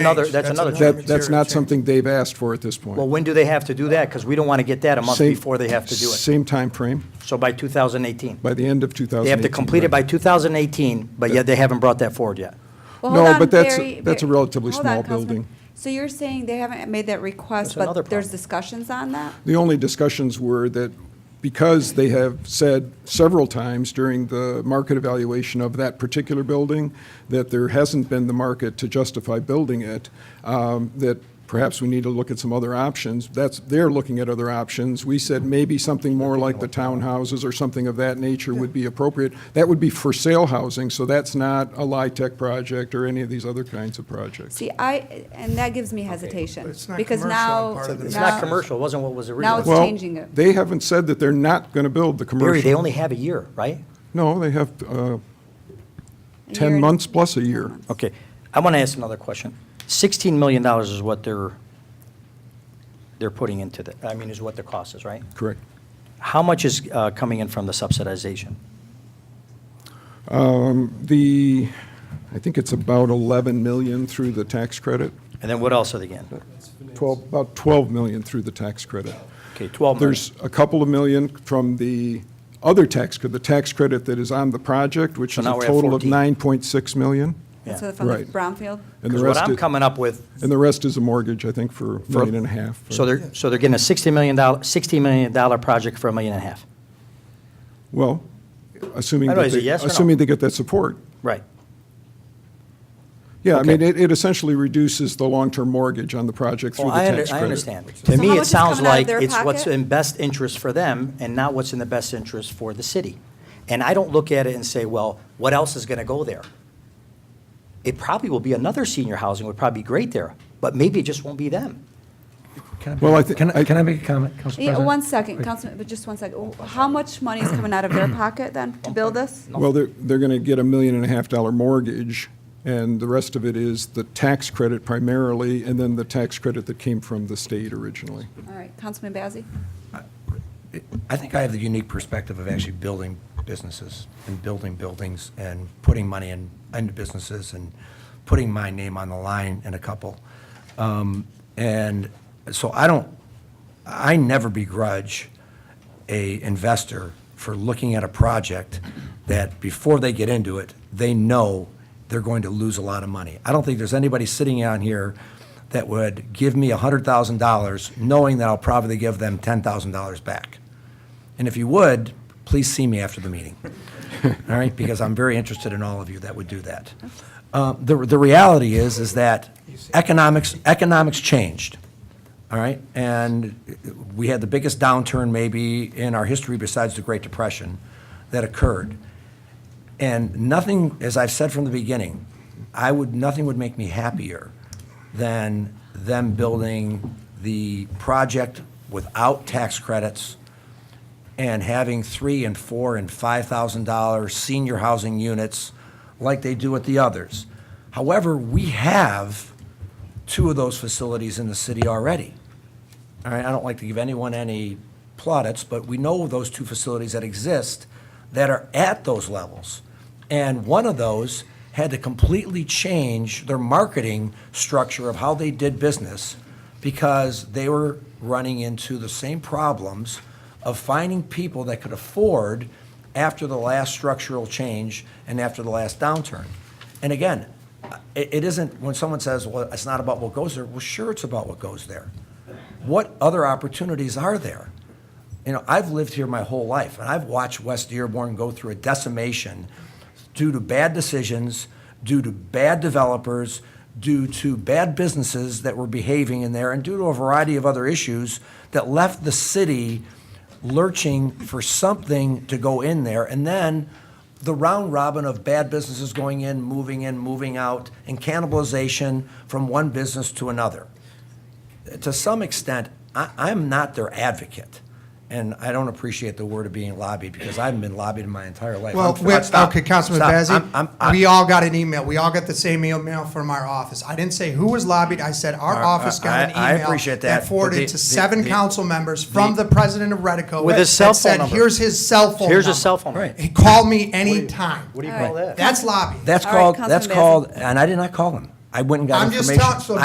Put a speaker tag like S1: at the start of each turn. S1: another-
S2: change.
S1: that's another
S2: another
S1: change.
S3: That, that's
S2: material
S3: not
S2: change.
S3: something they've asked for at this
S1: Well,
S3: point.
S1: when do they have to do that? Because we don't want to get that a month
S3: Same-
S1: before they have to do it.
S3: Same timeframe,
S1: So by 2018.
S3: by the end of 2018.
S1: They have to complete it by 2018, but yet they haven't brought that forward yet.
S4: Well,
S3: No,
S4: hold on,
S3: but that's-
S4: Barry-
S3: that's a
S4: Barry-
S3: relatively
S4: hold on,
S3: small
S4: Councilman.
S3: building.
S4: So you're saying they haven't made that request,
S1: That's another
S4: but there's
S1: problem.
S4: discussions on that?
S3: The only discussions were that because they have said several times during the market evaluation of that particular building that there hasn't been the market to justify building it, um, that perhaps we need to look at some other options. That's, they're looking at other options. We said maybe something more like the townhouses or something of that nature would be appropriate. That would be for sale housing, so that's not a LIHTC project or any of these other kinds of projects.
S4: See, I, and that gives me hesitation,
S2: it's not
S4: because
S2: commercial on
S4: now.
S2: part of the
S1: It's
S4: now-
S1: not commercial, it wasn't what was
S4: Now it's
S1: originally.
S3: Well,
S4: changing it.
S3: They haven't said that they're not going to build the commercial.
S1: Barry, they only have a year, right?
S3: No, they have uh,
S4: a year
S3: 10
S4: and-
S3: months plus a year.
S1: Okay, I want to ask another question. $16 million is what they're, they're putting into the, I mean, is what the cost is, right?
S3: Correct.
S1: How much is uh, coming in from the subsidization?
S3: The, I think it's about 11 million through the tax credit,
S1: And then what else are they getting?
S3: 12, about 12 million through the tax credit.
S1: Okay, 12 million.
S3: There's a couple of million from the other tax, cre- the tax credit that is on the project, which
S1: So
S3: is a
S1: now we're at
S3: total of
S1: 14.
S3: 9.6 million.
S4: That's
S1: Yeah.
S4: what- from the
S3: Right.
S4: brownfield?
S3: And the
S1: Because what
S3: rest,
S1: I'm
S3: i-
S1: coming up with,
S3: and the rest is a mortgage, I think, for a million and a half.
S1: so they're, so they're getting a $60 million, $60 million project for a million and a half.
S3: Well, assuming
S1: I don't know,
S3: that
S1: is it
S3: they,
S1: yes or no?
S3: assuming they get that support.
S1: Right.
S3: Yeah, I mean,
S1: Okay.
S3: it, it essentially reduces the long-term mortgage on the project through
S1: Well,
S3: the
S1: I, under-
S3: tax credit.
S1: I understand.
S4: So
S1: To
S4: how
S1: me,
S4: much
S1: it
S4: is
S1: sounds
S4: coming out of
S1: like
S4: their
S1: it's what's
S4: pocket?
S1: in best interest for them and not what's in the best interest for the city. And I don't look at it and say, well, what else is going to go there? It probably will be another senior housing would probably be great there, but maybe it just won't be them.
S5: Can
S3: Well, I
S5: I,
S3: thi-
S5: make- can
S3: I-
S5: I, can I make a comment, Council
S4: Yeah,
S5: President?
S4: one second, Councilman, but just one second. How much money is coming out of their pocket then to build this?
S3: Well, they're, they're going to get a million and a half dollar mortgage, and the rest of it is the tax credit primarily, and then the tax credit that came from the state originally.
S4: All right, Councilman Bazey?
S5: I think I have the unique perspective of actually building businesses and building buildings and putting money in, into businesses and putting my name on the line in a couple. Um, And so I don't, I never begrudge a investor for looking at a project that before they get into it, they know they're going to lose a lot of money. I don't think there's anybody sitting on here that would give me $100,000 knowing that I'll probably give them $10,000 back. And if you would, please see me after the meeting. All right, because I'm very interested in all of you that would do that. Uh, The, the reality is, is that economics, economics changed, all right? And we had the biggest downturn maybe in our history besides the Great Depression that occurred. And nothing, as I've said from the beginning, I would, nothing would make me happier than them building the project without tax credits and having three and four and five thousand dollar senior housing units like they do at the others. However, we have two of those facilities in the city already. All right, I don't like to give anyone any plaudits, but we know those two facilities that exist that are at those levels. And one of those had to completely change their marketing structure of how they did business because they were running into the same problems of finding people that could afford after the last structural change and after the last downturn. And again, it, it isn't, when someone says, well, it's not about what goes there, well, sure, it's about what goes there what other opportunities are there? You know, I've lived here my whole life, and I've watched West Dearborn go through a decimation due to bad decisions, due to bad developers, due to bad businesses that were behaving in there, and due to a variety of other issues that left the city lurching for something to go in there. And then the round robin of bad businesses going in, moving in, moving out, and cannibalization from one business to another to some extent, I, I'm not their advocate. And I don't appreciate the word of being lobbied because I haven't been lobbied in my entire life.
S2: Well,
S5: I'm-
S2: wait,
S5: stop,
S2: okay, Councilman
S5: stop. I'm- I'm-
S2: Bazey,
S5: I'm-
S2: we all got an email. We all got the same email from our office. I didn't say who was lobbied. I said our
S5: Our-
S2: office
S5: I-
S2: got an email.
S5: I appreciate that, but the-
S2: forwarded
S5: the-
S2: to seven
S5: the-
S2: council members from
S5: the-
S2: the president of Redico.
S1: With his
S2: that
S1: cell phone
S2: said,
S1: number.
S2: Here's his cell phone number.
S1: Here's a cell phone.
S5: Right.
S2: He called me anytime.
S1: What do you
S4: All
S1: call
S4: right.
S1: that?
S2: That's lobbying.
S5: That's
S4: All right,
S5: called, that's
S4: Councilman Bazey.
S5: called, and I did not call them.
S6: I went and got
S5: I'm just
S6: information.
S5: telling- so